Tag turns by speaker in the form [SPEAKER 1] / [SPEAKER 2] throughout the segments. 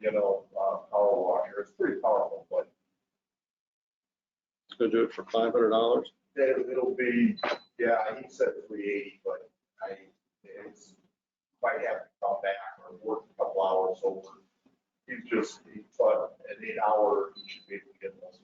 [SPEAKER 1] you know, uh, power washer. It's pretty powerful, but
[SPEAKER 2] Gonna do it for five hundred dollars?
[SPEAKER 1] it- it'll be, yeah, he said three eighty, but I, it's, might have to come back or work a couple hours over. He's just, he thought an eight hour, he should be able to get those.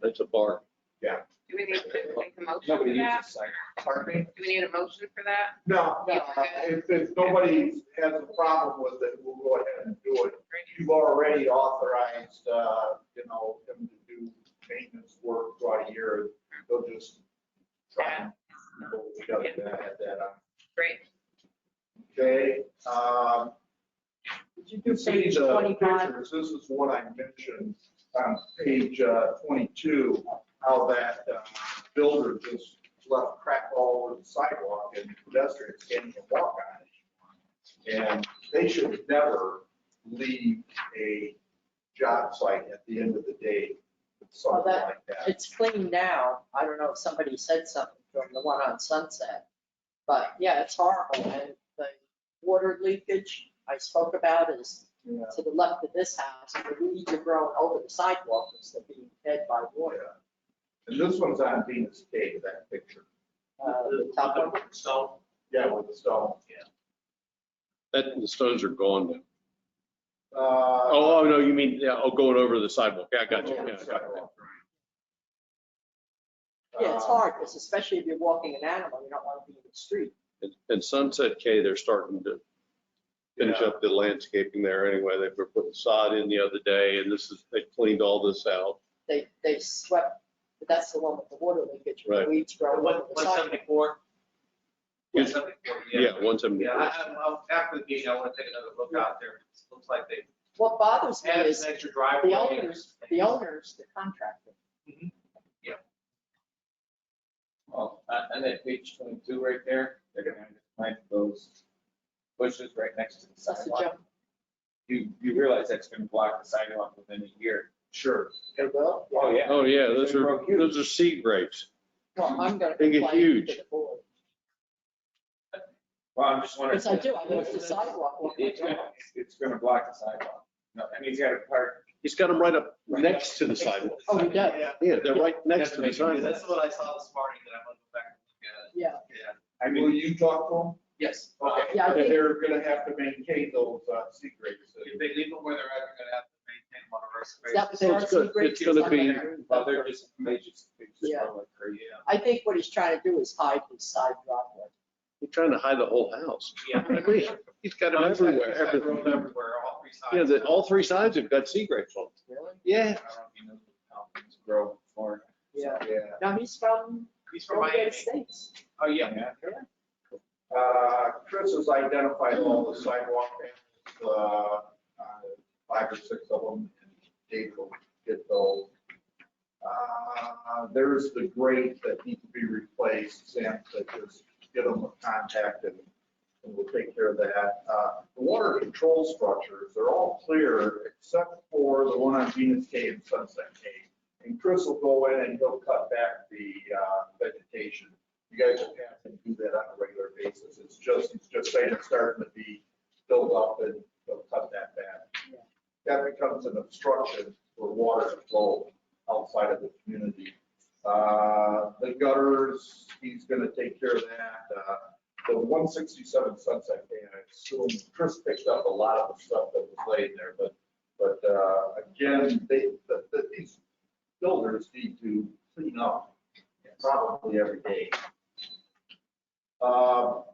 [SPEAKER 2] That's a bar.
[SPEAKER 1] Yeah.
[SPEAKER 3] Do we need to make a motion for
[SPEAKER 4] Nobody needs
[SPEAKER 3] that?
[SPEAKER 4] a sign.
[SPEAKER 1] Pardon me?
[SPEAKER 3] Do we need a motion for that?
[SPEAKER 1] No, no, if, if nobody has a problem with it, we'll go ahead and do it. You've already authorized, uh, you know, him to do maintenance work throughout a year. They'll just try and, we gotta add that on.
[SPEAKER 3] Great.
[SPEAKER 1] Okay, um, you can see
[SPEAKER 5] page
[SPEAKER 1] the
[SPEAKER 5] 25?
[SPEAKER 1] pictures, this is what I mentioned on page uh, 22, how that uh, builder just left crap all over the sidewalk and pedestrians can't even walk on it. And they should never leave a job site at the end of the day with
[SPEAKER 5] Well,
[SPEAKER 1] something
[SPEAKER 5] that-
[SPEAKER 1] like that.
[SPEAKER 5] It's clean now. I don't know if somebody said something during the one on Sunset. But yeah, it's horrible. And the water leakage I spoke about is
[SPEAKER 1] you know.
[SPEAKER 5] to the left of this house. The weeds are growing over the sidewalk instead of being fed by water.
[SPEAKER 1] uh, And this one's on Venus Cave, that picture.
[SPEAKER 5] Uh, The top of
[SPEAKER 6] So,
[SPEAKER 1] Yeah, with the stone.
[SPEAKER 2] That, the stones are gone now.
[SPEAKER 1] Uh,
[SPEAKER 2] Oh, oh, no, you mean, yeah, oh, going over the sidewalk. Yeah, I got you. Yeah, I got you.
[SPEAKER 5] Yeah,
[SPEAKER 6] Uh.
[SPEAKER 5] it's hard, 'cause especially if you're walking an animal, you don't want to be in the street.
[SPEAKER 2] And- And Sunset K, they're starting to finish
[SPEAKER 1] Yeah.
[SPEAKER 2] up the landscaping there anyway. They were putting sod in the other day and this is, they cleaned all this out.
[SPEAKER 5] They, they swept, but that's the one with the water leakage. where the
[SPEAKER 2] Right.
[SPEAKER 5] Weeds grow over
[SPEAKER 6] what,
[SPEAKER 5] the
[SPEAKER 6] one
[SPEAKER 5] sidewalk.
[SPEAKER 6] seventy-four?
[SPEAKER 2] Yes. Yeah, one
[SPEAKER 6] Yeah,
[SPEAKER 2] seventy-four.
[SPEAKER 6] I, I- I'll- after the meeting, I want to take another look out there. It Looks like they
[SPEAKER 5] What bothers me
[SPEAKER 6] added
[SPEAKER 5] is
[SPEAKER 6] an extra driveway.
[SPEAKER 5] The owners, the owners, the contractor.
[SPEAKER 4] Well, on- on that page twenty-two right there, they're gonna have to plant those bushes right next to the
[SPEAKER 5] That's a
[SPEAKER 4] sidewalk.
[SPEAKER 5] joke.
[SPEAKER 4] You, you realize that's gonna block the sidewalk within a year.
[SPEAKER 1] Sure.
[SPEAKER 5] It will?
[SPEAKER 4] Oh, yeah.
[SPEAKER 2] Oh, yeah,
[SPEAKER 4] They
[SPEAKER 2] those are,
[SPEAKER 4] grow huge.
[SPEAKER 2] those are seed grapes.
[SPEAKER 5] Well, I'm gonna
[SPEAKER 2] They get
[SPEAKER 5] complain to
[SPEAKER 2] huge.
[SPEAKER 5] the board.
[SPEAKER 4] Well, I'm just wondering.
[SPEAKER 5] Because I do, I noticed the sidewalk. when I
[SPEAKER 4] It's
[SPEAKER 5] drove.
[SPEAKER 4] gonna, it's gonna block the sidewalk. No, I mean, he's got to park.
[SPEAKER 2] He's got them right up next to the sidewalk.
[SPEAKER 5] Oh, he does,
[SPEAKER 6] Yeah.
[SPEAKER 2] Yeah, they're right next to the
[SPEAKER 4] That's amazing.
[SPEAKER 2] sidewalk.
[SPEAKER 6] That's what I saw this morning that I'm gonna go back and
[SPEAKER 5] yeah.
[SPEAKER 6] look at. Yeah.
[SPEAKER 4] I
[SPEAKER 1] Will
[SPEAKER 4] mean,
[SPEAKER 1] you talk to them?
[SPEAKER 6] Yes.
[SPEAKER 1] Okay.
[SPEAKER 5] Yeah, I think-
[SPEAKER 1] They're gonna have to maintain those uh, secrets.
[SPEAKER 6] If they leave them where they're at, they're gonna have to maintain one of our spaces.
[SPEAKER 5] That was
[SPEAKER 2] So it's
[SPEAKER 5] actually
[SPEAKER 2] good.
[SPEAKER 5] great
[SPEAKER 2] It's gonna be-
[SPEAKER 5] design.
[SPEAKER 4] well, they're just, they just, they just
[SPEAKER 5] Yeah.
[SPEAKER 4] go like crazy.
[SPEAKER 6] Yeah.
[SPEAKER 5] I think what he's trying to do is hide his side driveway.
[SPEAKER 2] He's trying to hide the whole house.
[SPEAKER 6] Yeah.
[SPEAKER 2] I mean, He's got them
[SPEAKER 6] It's like-
[SPEAKER 2] everywhere.
[SPEAKER 6] it's like rolled
[SPEAKER 2] everything.
[SPEAKER 6] Everywhere, all three sides.
[SPEAKER 2] Yeah, that, all three sides have got sea grapes on.
[SPEAKER 5] Really?
[SPEAKER 4] I
[SPEAKER 2] Yeah.
[SPEAKER 4] don't even know how things grow for.
[SPEAKER 5] Yeah.
[SPEAKER 1] Yeah.
[SPEAKER 5] Now, he's from
[SPEAKER 6] He's from Miami.
[SPEAKER 5] United States.
[SPEAKER 6] Oh, yeah.
[SPEAKER 1] Uh, Chris has identified all the sidewalk panels, uh, uh, five or six of them, and Dave will get those. Uh, There's the grate that need to be replaced, Sam said just get them a contact and and we'll take care of that. Uh, The water control structures, they're all clear except for the one on Venus Cave and Sunset Cave. And Chris will go in and he'll cut back the uh, vegetation. You guys will have to do that on a regular basis. It's just, it's just saying it's starting to be built up and they'll cut that back. That becomes an obstruction for water to flow outside of the community. Uh, The gutters, he's going to take care of that. Uh, the one sixty-seven Sunset Bay, and I assume Chris picked up a lot of the stuff that was laid there, but, but, uh, again, they, the, the, these builders need to clean up probably every day. Um,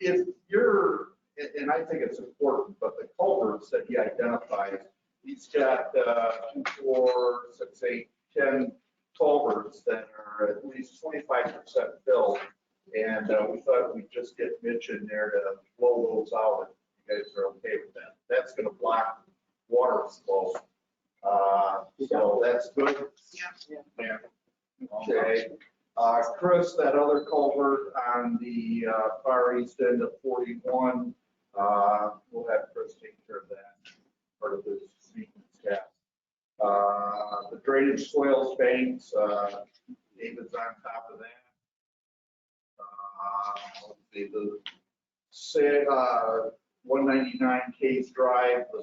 [SPEAKER 1] if you're, and, and I think it's important, but the culverts that he identifies, he's got, uh, two, four, six, eight, ten culverts that are at least twenty-five percent filled. And uh, we thought we'd just get Mitch in there to blow those out, if you guys are okay with that. That's gonna block water flow. Uh, So that's good.
[SPEAKER 5] Yeah.
[SPEAKER 1] Yeah. Okay. Uh, Chris, that other culvert on the uh, far east end of 41, uh, we'll have Chris take care of that, part of this maintenance staff. Uh, The drainage soils banks, uh, David's on top of that. Uh, let's see, the, say, uh, 199 Case Drive, the